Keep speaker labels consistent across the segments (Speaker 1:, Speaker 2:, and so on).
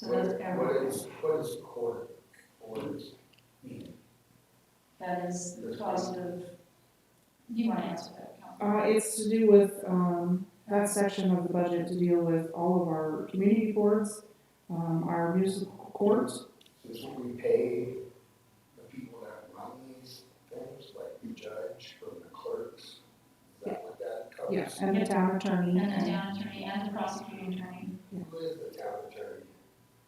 Speaker 1: What
Speaker 2: that's
Speaker 1: what
Speaker 2: everything.
Speaker 1: is, what is court orders mean?
Speaker 2: That is the cost of, you want to answer that, Council?
Speaker 3: Uh, it's to do with, um, that section of the budget to deal with all of our community courts, um, our municipal courts.
Speaker 1: So Is what we pay the people that run these things, like the judge or the clerks? Is that what that covers?
Speaker 3: Yes, and the town attorney.
Speaker 2: And the town attorney and the prosecuting attorney.
Speaker 1: Who is the town attorney?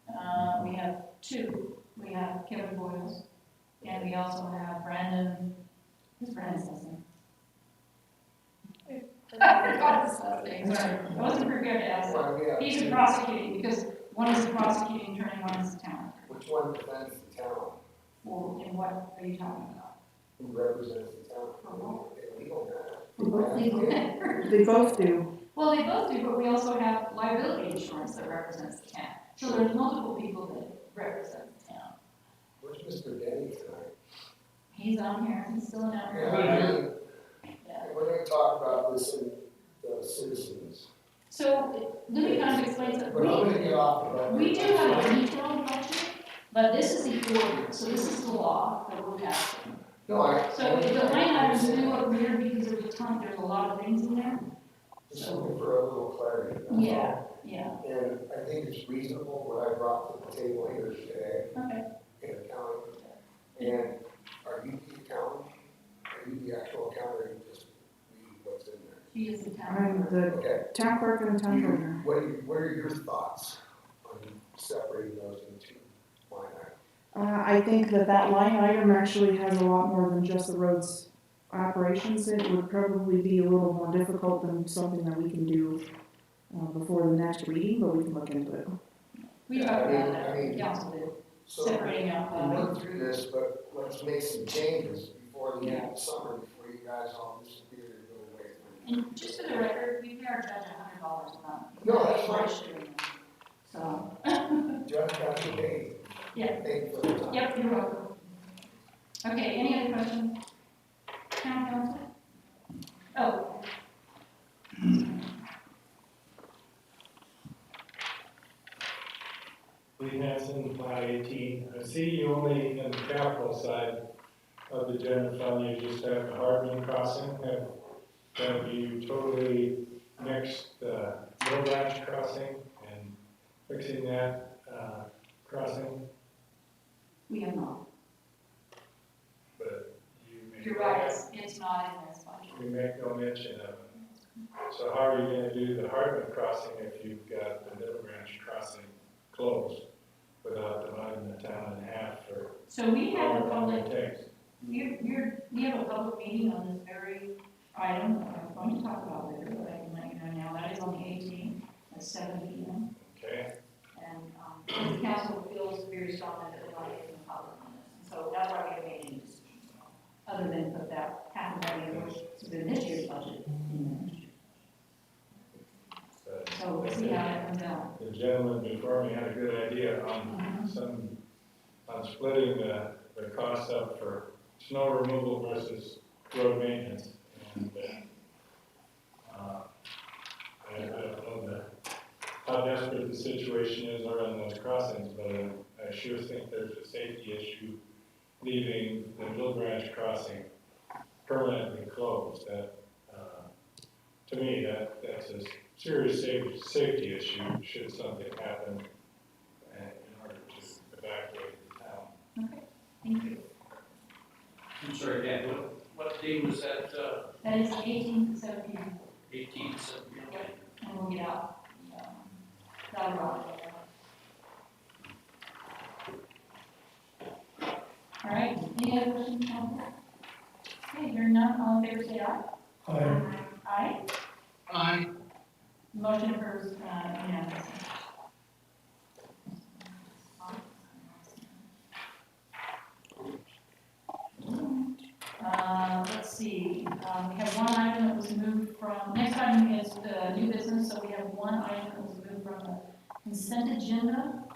Speaker 2: Uh, we have two. We have Kevin Boyles, and we also have Brandon, who's Brandon's last name? I forgot his last name, sorry. I wasn't prepared to ask that.
Speaker 1: Well, we have
Speaker 2: He's a
Speaker 1: two.
Speaker 2: prosecuting, because one is the prosecuting attorney, one is the town.
Speaker 1: Which one defends the town?
Speaker 2: Well, and what are you talking about?
Speaker 1: Who represents the town?
Speaker 2: For what?
Speaker 1: They legal matter.
Speaker 3: They
Speaker 2: Uh-huh.
Speaker 3: both
Speaker 2: Legal
Speaker 3: They both do.
Speaker 2: Well, they both do, but we also have liability insurance that represents the town. So there's multiple people that represent the town.
Speaker 1: Where's Mr. Denny tonight?
Speaker 2: He's on here, he's still down
Speaker 1: Yeah,
Speaker 2: here.
Speaker 1: I mean,
Speaker 2: Uh-huh. Yeah.
Speaker 1: We're gonna talk about this in the citizens.
Speaker 2: So Libby kind of explains that
Speaker 1: But I'm
Speaker 2: we,
Speaker 1: gonna get off of that.
Speaker 2: we do have a detailed budget, but this is the order, so this is the law that we're passing.
Speaker 1: No, I.
Speaker 2: So if the line items do look weird because there's a ton, there's a lot of things in there.
Speaker 1: Just looking for a little clarity. that's all.
Speaker 2: Yeah, yeah,
Speaker 1: And I think it's reasonable what I brought to the table here today
Speaker 2: okay.
Speaker 1: in accounting. And are you the accountant? Are you the actual accountant or you just read what's in there?
Speaker 2: He is the town.
Speaker 3: I'm the
Speaker 1: Okay.
Speaker 3: town clerk and the town
Speaker 2: Mm-hmm.
Speaker 1: You-
Speaker 2: Uh-huh.
Speaker 3: treasurer.
Speaker 1: What are, you- what are your thoughts on separating those into line items?
Speaker 3: Uh, I think that that line item actually has a lot more than just the roads operations. It would probably be a little more difficult than something that we can do, uh, before the next reading, but we can look into it.
Speaker 2: We talked about
Speaker 1: I mean- I
Speaker 2: that,
Speaker 1: mean-
Speaker 2: council did,
Speaker 1: So we
Speaker 2: separating out
Speaker 1: went
Speaker 2: the,
Speaker 1: through this, but let's make some changes before the end of summer, before you guys all disappear and go away.
Speaker 2: and just for the record, we pay our judge a hundred dollars a month.
Speaker 1: No, that's fine.
Speaker 2: fine. So,
Speaker 1: Judge got your name.
Speaker 2: Yeah.
Speaker 1: Thank you for the time.
Speaker 2: yep, you're welcome. Okay, any other questions? Town council? Oh,
Speaker 4: Lee Hanson, Cloud eighteen. I see you only in the capital side of the general fund, you just have the Hardman crossing, have, have you totally mixed the Mill Branch crossing and fixing that, uh, crossing,
Speaker 2: We have not.
Speaker 4: but you make.
Speaker 2: You're right, it's, it's not in this budget.
Speaker 4: You make no mention of it. So how are you gonna do the Hardman crossing if you've got the Mill Branch crossing closed without dividing the town in half for
Speaker 2: So we have a
Speaker 4: however long
Speaker 2: public,
Speaker 4: it takes?
Speaker 2: we're, we're, we have a public meeting on this very item that I'm going to talk about later, but I can let you know now. That is on the eighteenth at seven P M.
Speaker 4: Okay,
Speaker 2: And, um, the council feels very strongly that we're not getting the public on this. And So that's why we haven't made any decisions, other than put that half a million, which is in this year's budget, in
Speaker 4: but
Speaker 2: there. So we'll see how that comes out.
Speaker 4: the gentleman before me had a good idea
Speaker 2: Uh-huh.
Speaker 4: on some, on splitting the, the costs up for snow removal versus road maintenance. And, uh, uh, I, I don't know the, how desperate the situation is around those crossings, but I- I sure think there's a safety issue leaving the Mill Branch crossing permanently closed. That, uh, to me, that, that's a serious safety, safety issue, should something happen, and in order to evacuate the town.
Speaker 2: Thank you.
Speaker 5: I'm sorry, Dan, what, what day was that, uh,
Speaker 2: That is eighteen to seven P M.
Speaker 5: eighteenth, seventeen?
Speaker 2: and we'll get out. um, That'll rock. All right, any other questions, council? Okay, hearing none, all in favor, say aye. Aye,
Speaker 5: Aye.
Speaker 2: motion approves, uh, unanimously. Uh, let's see, um, we have one item that was moved from, next item is the new business, so we have one item that was moved from the consent agenda um, oh,